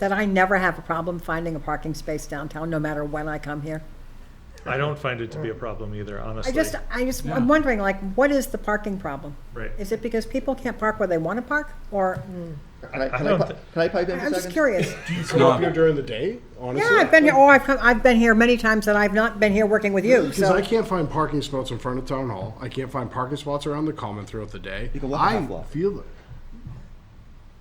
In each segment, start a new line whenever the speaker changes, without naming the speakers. that I never have a problem finding a parking space downtown, no matter when I come here.
I don't find it to be a problem either,
I
honestly.
just, I just,
Yeah.
I'm wondering, like, what is the parking problem?
Right.
Is it because people can't park where they want to park, or,
Mm. Can I,
I
can I,
don't
pi-
thi-
can I pipe in for
I'm
a
just
second?
curious.
Come up here during the day, honestly.
Yeah, I've been here, oh, I've come, I've been here many times and I've not been here working with you,
Because I
so.
can't find parking spots in front of town hall. I can't find parking spots around the common throughout the day.
You can walk a
I
half block.
feel it.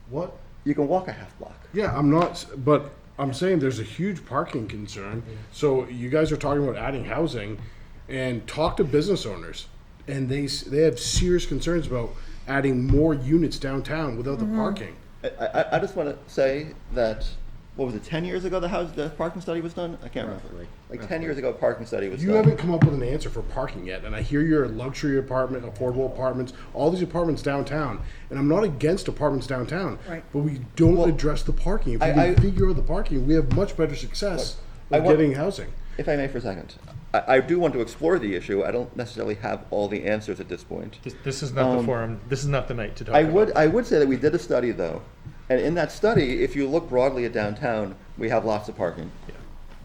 What?
You can walk a half block.
Yeah, I'm not. s- But I'm saying there's a huge parking concern. So you guys are talking about adding housing, and talk to business owners, and they s- they have serious concerns about adding more units downtown without
Mm-hmm.
the parking.
I, I, I just want to say that, what was it, 10 years ago the house, the parking study was done? I can't remember. Like 10 years ago, parking study was
You
done.
haven't come up with an answer for parking yet, and I hear you're a luxury apartment, affordable apartments, all these apartments downtown, and I'm not against apartments downtown,
Right.
but we don't
Well,
address the parking. If we
I-
can
I-
figure out the parking, we have much better success
Look, I
of
want-
getting housing.
If I may for a second, I, I do want to explore the issue. I don't necessarily have all the answers at this point.
This- This is not the forum, this is not the night to talk
Um, I
about
would, I would say that we did a study though, and in that study, if you look broadly at downtown, we have lots of parking.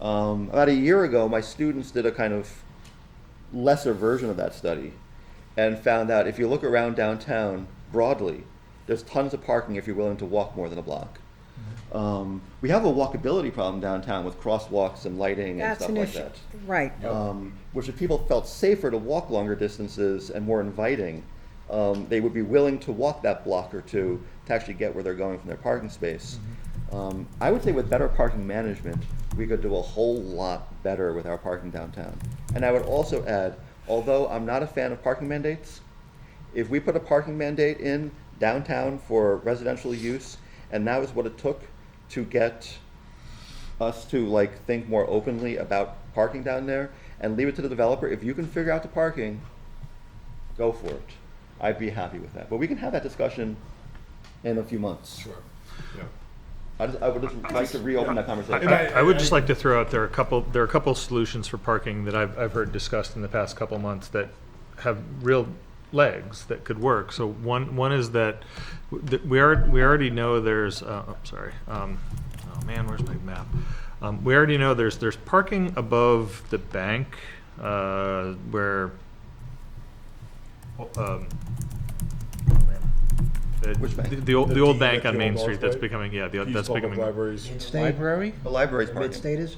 Um, about a year ago, my students did a kind of lesser version of that study, and found out if you look around downtown broadly, there's tons of parking if you're willing to walk more than a block. Um, we have a walkability problem downtown with crosswalks and lighting and
That's
stuff
an
like
issue,
that
right.
um, which if people felt safer to walk longer distances and more inviting, um, they would be willing to walk that block or two to actually get where they're going from their parking space. Um, I would say with better parking management, we could do a whole lot better with our parking downtown. And I would also add, although I'm not a fan of parking mandates, if we put a parking mandate in downtown for residential use, and that was what it took to get us to like think more openly about parking down there and leave it to the developer. If you can figure out the parking, go for it. I'd be happy with that. But we can have that discussion in a few months. Sure. I just, I would just like to reopen that
I-
conversation.
I, I would just like to throw out there are a couple, there are a couple solutions for parking that I've, I've heard discussed in the past couple months that have real legs that could work. So one, one is that w- that we are, we already know there's, uh, I'm sorry, um, oh man, where's my map? Um, we already know there's, there's parking above the bank, uh, where, um, oh, man. The-
Which bank?
The, the old, the old bank
the
on
old
Main Street that's
Northway?
becoming, yeah, the-
Use
that's
public
becoming
libraries.
Library?
The library's parking.
Mid-state is?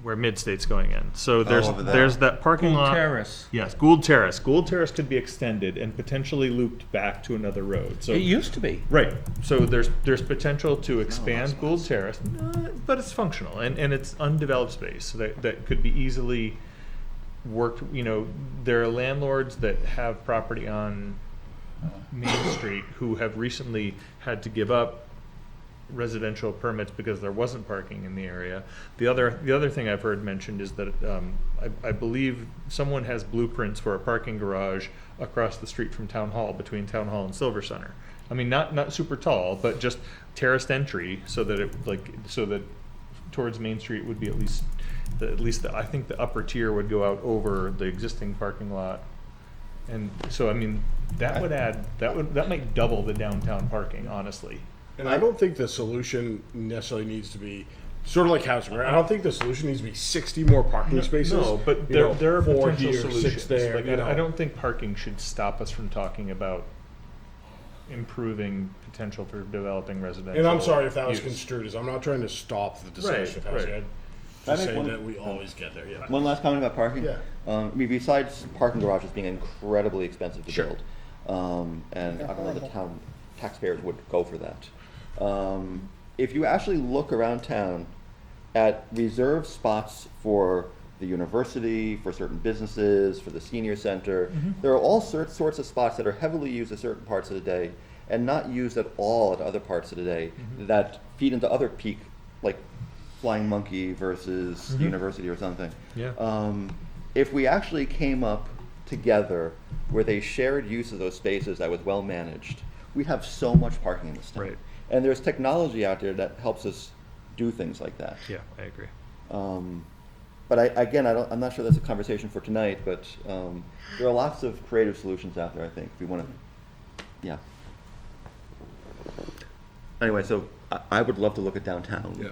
where Midstate's going in. So there's
Oh, over there.
there's that parking
Gould
lot.
Terrace.
Yes, Gould Terrace. Gould Terrace could be extended and potentially looped back to another road. So
It used to be.
right. So there's there's potential to expand Gould Terrace, uh, but it's functional and, and it's undeveloped space so that that could be easily worked. You know, there are landlords that have property on Main Street who have recently had to give up residential permits because there wasn't parking in the area. The other, the other thing I've heard mentioned is that, um, I, I believe someone has blueprints for a parking garage across the street from Town Hall, between Town Hall and Silver Center. I mean, not, not super tall, but just terraced entry so that it, like, so that towards Main Street would be at least, the, at least the, I think the upper tier would go out over the existing parking lot. And so, I mean, that would add, that would, that might double the downtown parking, honestly.
And I don't think the solution necessarily needs to be sort of like housing, right? I don't think the solution needs to be sixty more parking spaces.
No,
you
but there,
know,
there are
four
potential
here, six
solutions.
there,
Like,
you know.
I, I don't think parking should stop us from talking about improving potential for developing residential.
And I'm sorry if that was
use.
construed as, I'm not trying to stop the discussion of
Right,
housing.
right.
I'm Just
I make
saying
one-
that we always get there, yeah.
One last comment about parking.
Yeah.
Um, I mean, besides parking garages being incredibly expensive to
Sure.
build, um, and I don't know the town taxpayers would go for that. Um, if you actually look around town at reserved spots for the university, for certain businesses, for the senior center, there are all sorts sorts of spots that are heavily used at certain parts of the day and not used at all at other parts of the day that feed into other peak, like Flying Monkey versus University or something
Mm-hmm. Yeah.
um, if we actually came up together with a shared use of those spaces that was well managed, we'd have so much parking in this town.
Right.
And there's technology out there that helps us do things like that.
Yeah, I agree.
Um, but I, again, I don't, I'm not sure that's a conversation for tonight, but um, there are lots of creative solutions out there, I think, if we want to, yeah. anyway, so I, I would love to look at downtown.
Yeah.